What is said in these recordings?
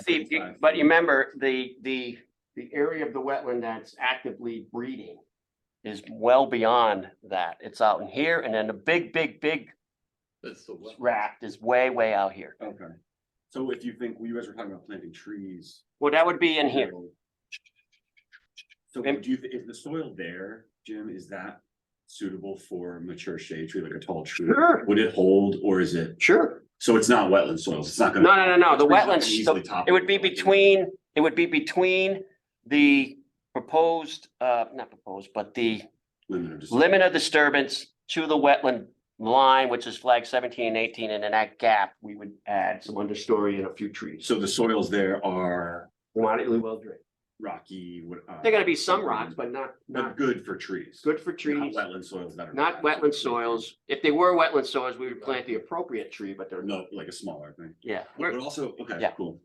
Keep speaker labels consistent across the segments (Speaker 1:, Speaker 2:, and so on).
Speaker 1: Steve, you- but you remember, the, the, the area of the wetland that's actively breeding is well beyond that. It's out in here, and then the big, big, big
Speaker 2: That's the wet.
Speaker 1: raft is way, way out here.
Speaker 3: Okay, so if you think, well, you guys were talking about planting trees.
Speaker 1: Well, that would be in here.
Speaker 3: so- So
Speaker 1: And-
Speaker 3: do you, thi- is the soil there, Jim, is that suitable for mature shade tree, like a tall tree?
Speaker 1: Sure.
Speaker 3: Would it hold or is it,
Speaker 1: Sure.
Speaker 3: so it's not wetland soils, it's not
Speaker 1: No,
Speaker 3: gonna.
Speaker 1: no, no, no, the
Speaker 3: trees aren't gonna
Speaker 1: wetlands,
Speaker 3: easily
Speaker 1: so
Speaker 3: topple
Speaker 1: it would be
Speaker 3: over, like,
Speaker 1: between, it would be between the proposed, uh, not proposed, but the
Speaker 3: Limit of. dis-
Speaker 1: limit of disturbance to the wetland line, which is flag seventeen and eighteen, and in that gap, we would add some understory and a few trees.
Speaker 3: So the soils there are
Speaker 1: Moderately well drained.
Speaker 3: rocky. what, uh,
Speaker 1: There are gonna be some rocks, but not,
Speaker 3: But
Speaker 1: not
Speaker 3: good for trees.
Speaker 1: good for
Speaker 3: Not
Speaker 1: trees,
Speaker 3: wetland soils that are.
Speaker 1: not wetland soils. If they were wetland soils, we would plant the appropriate tree, but they're not.
Speaker 3: No, like a smaller thing,
Speaker 1: Yeah,
Speaker 3: but
Speaker 1: we're-
Speaker 3: also, okay,
Speaker 1: Yeah.
Speaker 3: cool.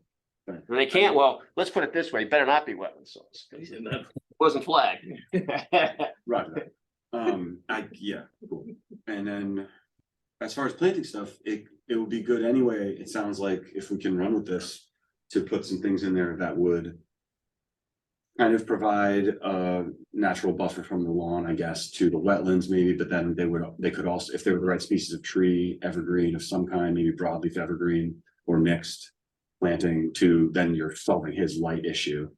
Speaker 1: they can't, well, let's put it this way, better not be wetland soils. 'cause It Wasn't flagged.
Speaker 3: Roger that. Um, I, yeah, cool. And then as far as planting stuff, it, it would be good anyway. It sounds like if we can run with this to put some things in there that would kind of provide a natural buffer from the lawn, I guess, to the wetlands maybe, but then they would, they could also, if they were the right species of tree, evergreen of some kind, maybe broadleaf evergreen or mixed planting to, then you're solving his light issue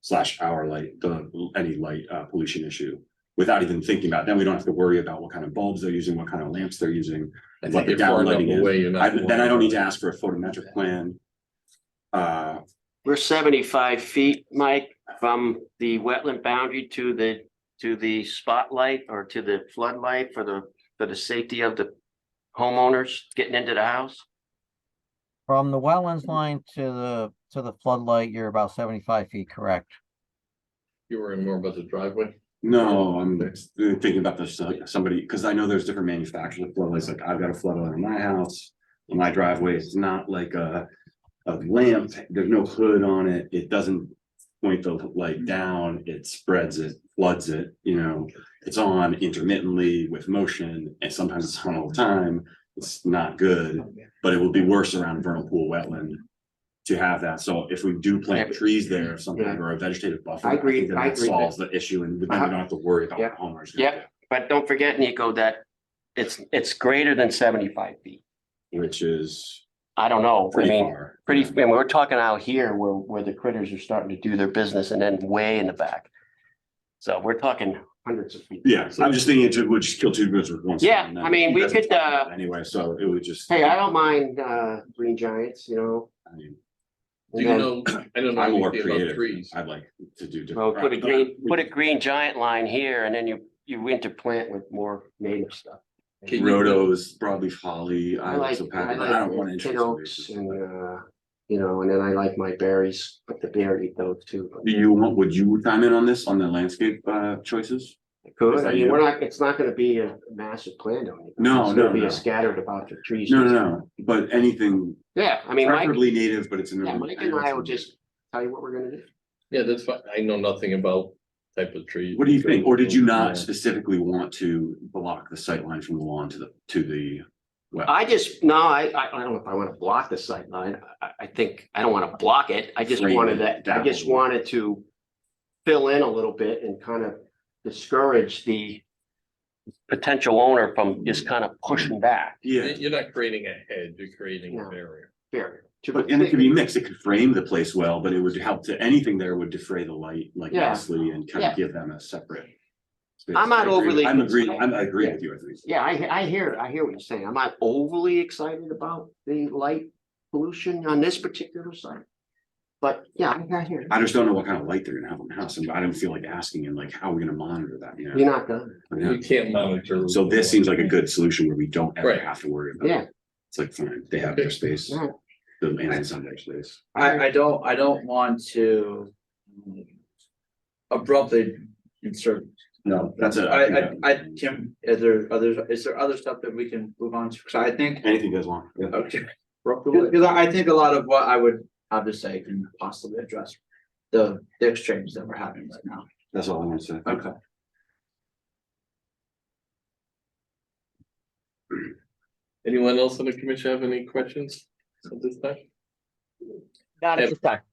Speaker 3: slash our light, the, any light uh, pollution issue without even thinking about, it. then we don't have to worry about what kind of bulbs they're using, what kind of lamps they're using.
Speaker 2: I
Speaker 3: What
Speaker 2: think
Speaker 3: the
Speaker 2: you're far enough
Speaker 3: downlighting is.
Speaker 2: away, you're
Speaker 3: I,
Speaker 2: not.
Speaker 3: then I don't need to ask for a photometric plan. Uh,
Speaker 1: We're seventy-five feet, Mike, from the wetland boundary to the, to the spotlight or to the floodlight for the, for the safety of the homeowners getting into the house.
Speaker 4: From the wetlands line to the, to the floodlight, you're about seventy-five feet, correct?
Speaker 2: You were in more about the driveway.
Speaker 3: no, I'm thinking about this, uh, somebody, because I know there's different manufacturers, floodlights, like I've got a floodlight in my house. In my driveway, it's not like a, a lamp, there's no hood on it, it doesn't point the light down, it spreads it, floods it, you know. It's on intermittently with motion, and sometimes it's on all the time, it's not good. but it will be worse around vernal pool wetland to have that. So if we do
Speaker 1: Yeah,
Speaker 3: plant
Speaker 1: but-
Speaker 3: trees there or something,
Speaker 1: Yeah.
Speaker 3: or a vegetative buffer.
Speaker 1: I agree-
Speaker 3: think that
Speaker 1: I
Speaker 3: that
Speaker 1: agree with
Speaker 3: Solves the issue and then we
Speaker 1: Uh-huh.
Speaker 3: don't have to worry about
Speaker 1: Yeah.
Speaker 3: what homeowners.
Speaker 1: Yeah. But don't forget, Nico, that it's, it's greater than seventy-five feet.
Speaker 3: Which is
Speaker 1: I don't know. I
Speaker 3: pretty
Speaker 1: mean,
Speaker 3: far.
Speaker 1: pretty, and we're talking out here where, where the critters are starting to do their business and then way in the back. So we're talking hundreds of feet.
Speaker 3: Yeah, I'm just thinking it would just kill two birds with one. stone,
Speaker 1: Yeah,
Speaker 3: and
Speaker 1: I
Speaker 3: that-
Speaker 1: mean, we
Speaker 3: that's a
Speaker 1: could,
Speaker 3: problem
Speaker 1: uh,
Speaker 3: Anyway, so it would just.
Speaker 1: Hey, I don't mind, uh, green giants, you know.
Speaker 3: I mean,
Speaker 2: Do you
Speaker 1: and then-
Speaker 2: know, I don't know
Speaker 3: I'm more
Speaker 2: anything about
Speaker 3: creative.
Speaker 2: trees.
Speaker 3: I'd like to do.
Speaker 1: Well,
Speaker 3: different.
Speaker 1: put a green, put a green giant line here and then you, you interplant with more native stuff.
Speaker 2: Can you-
Speaker 3: Rhodos, broadleaf holly.
Speaker 1: I
Speaker 3: ilex
Speaker 1: like,
Speaker 3: of
Speaker 1: I
Speaker 3: papaver- I don't want
Speaker 1: like tin oaks
Speaker 3: to.
Speaker 1: and, uh, you know, and then I like my berries, but the bear eat those too.
Speaker 3: Do you want, would you chime in on this, on the landscape uh choices? Is
Speaker 1: Could,
Speaker 3: that
Speaker 1: I mean,
Speaker 3: you?
Speaker 1: we're not, it's not gonna be a massive plan on it.
Speaker 3: No,
Speaker 1: It's gonna
Speaker 3: no,
Speaker 1: be
Speaker 3: no.
Speaker 1: Scattered about the trees.
Speaker 3: No, no, no, but anything
Speaker 1: Yeah, I mean, Mike,
Speaker 3: preferably native, but it's in. the-
Speaker 1: yeah, Mike and I will just tell you what we're gonna do.
Speaker 2: Yeah, that's fine. I know nothing about type of trees.
Speaker 3: What do you think? Or did you
Speaker 2: Yeah.
Speaker 3: not specifically want to block the sightline from the lawn to the, to the? well?
Speaker 1: I just, no, I, I, I don't know if I wanna block the sight line. I, I think, I don't wanna block it. I just
Speaker 3: Frame
Speaker 1: wanted
Speaker 3: it
Speaker 1: that, I
Speaker 3: down.
Speaker 1: just wanted to fill in a little bit and kind of discourage the potential owner from
Speaker 3: Mm.
Speaker 1: just kind of pushing back
Speaker 3: Yeah,
Speaker 2: You're not creating a hedge, you're creating a
Speaker 1: No.
Speaker 2: barrier.
Speaker 1: barrier. to
Speaker 3: but, and it could be mixed. It could frame the place well, but it would help to, anything there would defray the light, like
Speaker 1: Yeah.
Speaker 3: nicely and kind
Speaker 1: Yeah.
Speaker 3: of give them a separate. space.
Speaker 1: I'm not
Speaker 3: I agree with-
Speaker 1: overly
Speaker 3: I'm agree, I'm,
Speaker 1: concerned.
Speaker 3: I agree with you, I think.
Speaker 1: Yeah, I, I hear, I hear what you're saying. I'm not overly excited about the light pollution on this particular site. But yeah, I I hear, you.
Speaker 3: I just don't know what kind of light they're gonna have in the house, and I don't feel like asking, and like, how are we gonna monitor that, you know?
Speaker 1: you're not done.
Speaker 3: Yeah.
Speaker 2: You can't monitor.
Speaker 3: So this seems like a good solution where we don't ever
Speaker 2: Right.
Speaker 3: have to worry about. it.
Speaker 1: Yeah,
Speaker 3: It's like, fine, they have their space,
Speaker 1: Yeah.
Speaker 3: the aliens have their space.
Speaker 5: I, I don't, I don't want to mm, abruptly insert,
Speaker 3: No, that's it.
Speaker 5: I, I, I, Tim, is there other, is there other stuff that we can move on to? Cause I think,
Speaker 3: Anything you guys want. yeah.
Speaker 5: okay. Cause I, I think a lot of what I would have to say can possibly address the, the exchange that we're having right now.
Speaker 3: That's all I want to say.
Speaker 5: Okay.
Speaker 2: Anyone else on the commission have any questions at this time? Not at
Speaker 6: Yep.
Speaker 2: this time.